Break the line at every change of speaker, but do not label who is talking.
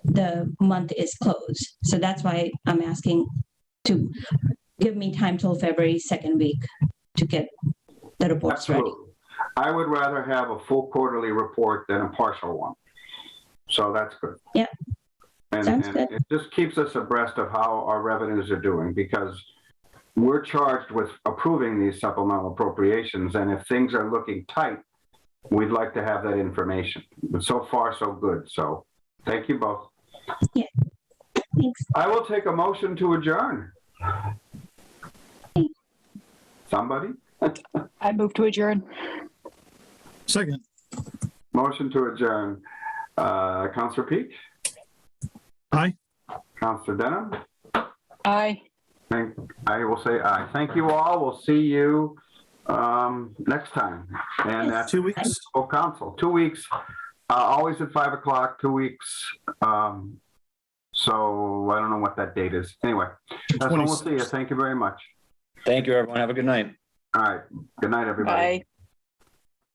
the month is closed. So that's why I'm asking to give me time till February second week to get the reports ready.
Absolutely. I would rather have a full quarterly report than a partial one. So that's good.
Yeah.
And,
Sounds
and it just keeps us abreast of how our revenues are doing because we're charged with approving these supplemental appropriations. And if things are looking tight, we'd like to have that information. But so far, so good. So thank you both.
Thanks.
I will take a motion to adjourn. Somebody?
I move to adjourn.
Second,
Motion to adjourn. Uh, Counselor Peak?
Aye.
Counselor Denham?
Aye.
Thank, I will say aye. Thank you all. We'll see you, um, next time. And that's
two weeks.
full council, two weeks, uh, always at five o'clock, two weeks. Um, so I don't know what that date is. Anyway, that's when we'll see you.
26th.
Thank you very much.
Thank you, everyone. Have a good night.
All right. Good night, everybody.
Bye.